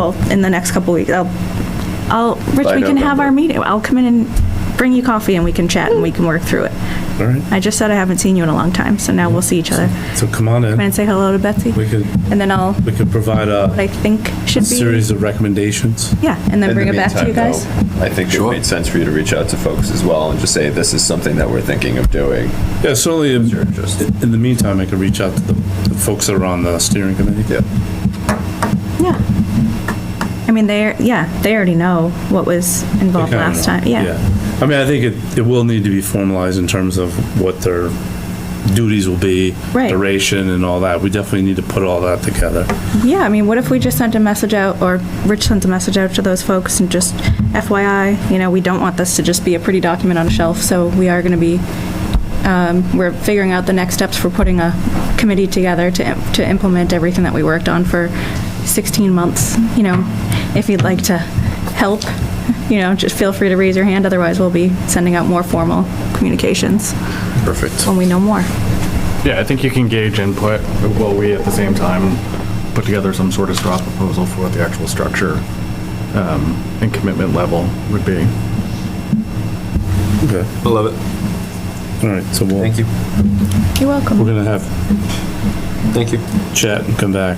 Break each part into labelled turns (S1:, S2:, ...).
S1: will in the next couple weeks. I'll, I'll, Rich,
S2: By
S1: we can have our
S2: November.
S1: meeting. I'll come in and bring you coffee and we can chat and we can work through it.
S3: All right,
S1: I just said I haven't seen you in a long time, so now we'll see each other.
S3: so come on
S1: Come in
S3: in.
S1: and say hello to Betsy.
S3: We could,
S1: And then I'll,
S3: we could provide
S1: what I
S3: a
S1: think should be,
S3: series of recommendations.
S1: yeah, and
S2: In
S1: then
S2: the
S1: bring it back to you
S2: meantime,
S1: guys.
S2: though, I think it
S4: Sure.
S2: made sense for you to reach out to folks as well and just say, this is something that we're thinking of doing.
S3: Yeah, certainly, in
S2: Sure, just-
S3: in the meantime, I could reach out to the the folks that are on the steering committee.
S2: Yeah.
S1: Yeah. I mean, they're, yeah, they already know what was
S3: They
S1: involved
S3: kinda
S1: last
S3: know.
S1: time, yeah.
S3: I mean, I think it, it will need to be formalized in terms of what their duties will be.
S1: Right.
S3: Duration and all that. We definitely need to put all that together.
S1: Yeah, I mean, what if we just sent a message out, or Rich sent a message out to those folks and just FYI, you know, we don't want this to just be a pretty document on a shelf, so we are gonna be, um, we're figuring out the next steps for putting a committee together to, im- to implement everything that we worked on for 16 months, you know, if you'd like to help, you know, just feel free to raise your hand, otherwise we'll be sending out more formal communications
S2: Perfect.
S1: when we know more.
S5: Yeah, I think you can gauge input while we at the same time put together some sort of straw proposal for what the actual structure um, and commitment level would be.
S3: Okay.
S4: I love it.
S3: All right, so we'll,
S4: Thank you.
S3: we're
S1: You're welcome.
S3: gonna have
S4: Thank you.
S3: chat and come back.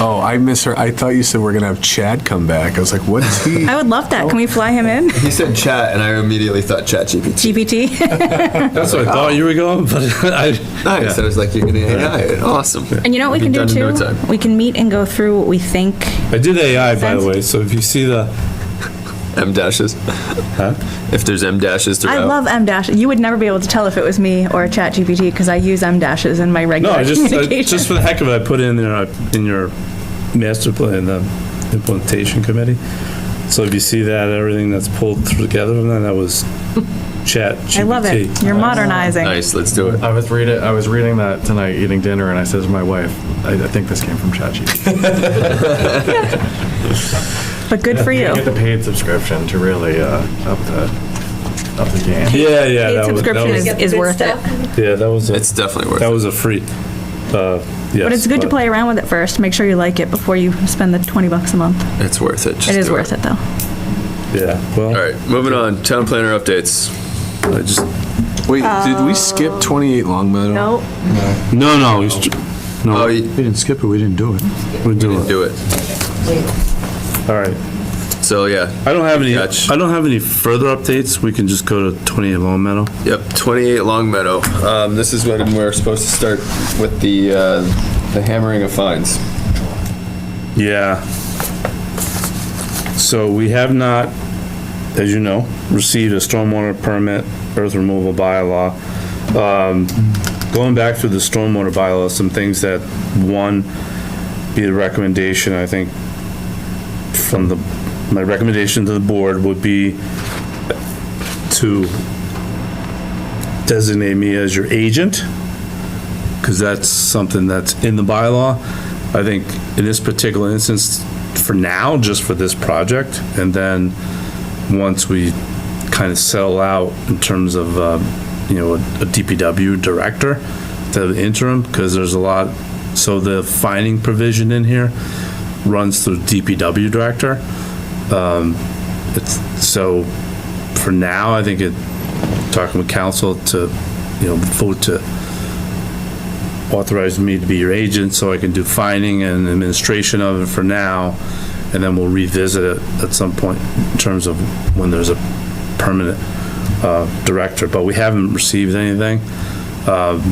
S4: Oh, I miss her. I thought you said we're gonna have Chad come back. I was like, what is he?
S1: I would love that. Can we fly him in?
S4: He said chat, and I immediately thought chat GPT.
S1: GPT?
S3: That's what I thought you were going, but I,
S4: Nice. I was like, you're gonna AI it. Awesome.
S1: And you know what we can do
S4: Done in no
S1: too?
S4: time.
S1: We can meet and go through what we think.
S3: I did AI, by
S1: Sense.
S3: the way, so if you see the,
S4: M dashes.
S3: huh?
S4: If there's M dashes throughout.
S1: I love M dash. You would never be able to tell if it was me or Chat GPT because I use M dashes in my
S3: No,
S1: regular
S3: I
S4: uh,
S3: just, I-
S1: communication.
S3: just for the heck of it, I put in there, uh, in your master plan, the implementation committee. So if you see that, everything that's pulled through together, and then that was chat GPT.
S1: I love it. You're modernizing.
S4: nice. Let's do it.
S5: I was reading, I was reading that tonight, eating dinner, and I said to my wife, I I think this came from ChatGPT.
S1: But good for you.
S5: Get the paid subscription to really uh, up the, up the game.
S3: Yeah, yeah.
S1: Paid
S3: that was- that
S1: subscription
S3: was-
S1: is,
S6: Get the
S1: is
S6: good
S1: worth it.
S6: stuff.
S3: Yeah, that was,
S4: It's
S3: a-
S4: definitely worth
S3: that
S4: it.
S3: was a free, uh, yes.
S1: But it's good to play around with it first. Make sure you like it before you spend the 20 bucks a month.
S4: It's worth it. Just
S1: It is
S4: do
S1: worth it though.
S3: Yeah,
S4: All
S3: well,
S4: right, moving on. Town planner updates.
S3: I just,
S7: Wait, did we skip 28 Long Meadow?
S1: No,
S3: no, no, we should-
S4: Oh,
S3: no,
S4: you
S7: We didn't skip it, we didn't do it.
S3: we're doing it.
S4: do it.
S3: All right.
S4: So yeah,
S3: I don't have any, I
S4: Gotcha.
S3: don't have any further updates. We can just go to 28 Long Meadow.
S4: yep. 28 Long Meadow. Um, this is when we're supposed to start with the uh, the hammering of fines.
S3: Yeah. So we have not, as you know, received a stormwater permit, earth removal bylaw. Um, Going back through the stormwater bylaw, some things that, one, be the recommendation, I think, from the, my recommendation to the board would be to designate me as your agent, because that's something that's in the bylaw. I think in this particular instance, for now, just for this project, and then once we kind of settle out in terms of, uh, you know, a DPW director, the interim, because there's a lot, so the finding provision in here runs through DPW director. Um, It's, so for now, I think it, talking with council to, you know, vote to authorized me to be your agent, so I can do finding and administration of it for now, and then we'll revisit it at some point in terms of when there's a permanent uh, director, but we haven't received anything. Um,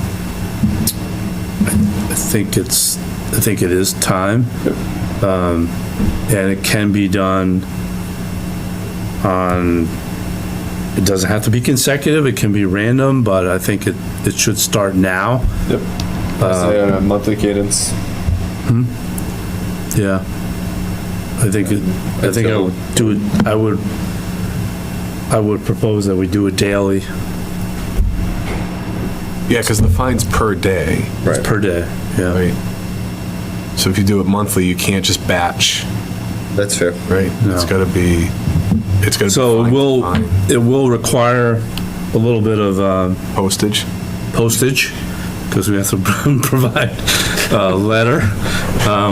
S3: I I think it's, I think it is time. Um, And it can be done on, it doesn't have to be consecutive, it can be random, but I think it, it should start now.
S2: Yep. Say on a monthly cadence.
S3: Yeah. I think, it- I think I would do it, I would, I would propose that we do it daily,
S7: Yeah, because the fine's per day,
S3: It's per day, yeah.
S7: right? So if you do it monthly, you can't just batch,
S2: That's fair.
S7: right? It's
S3: No.
S7: gotta be, it's gotta be.
S3: So it
S7: fine,
S3: will,
S7: fine.
S3: it will require a little bit of um,
S7: Postage?
S3: postage, because we have to provide a uh, letter. Um,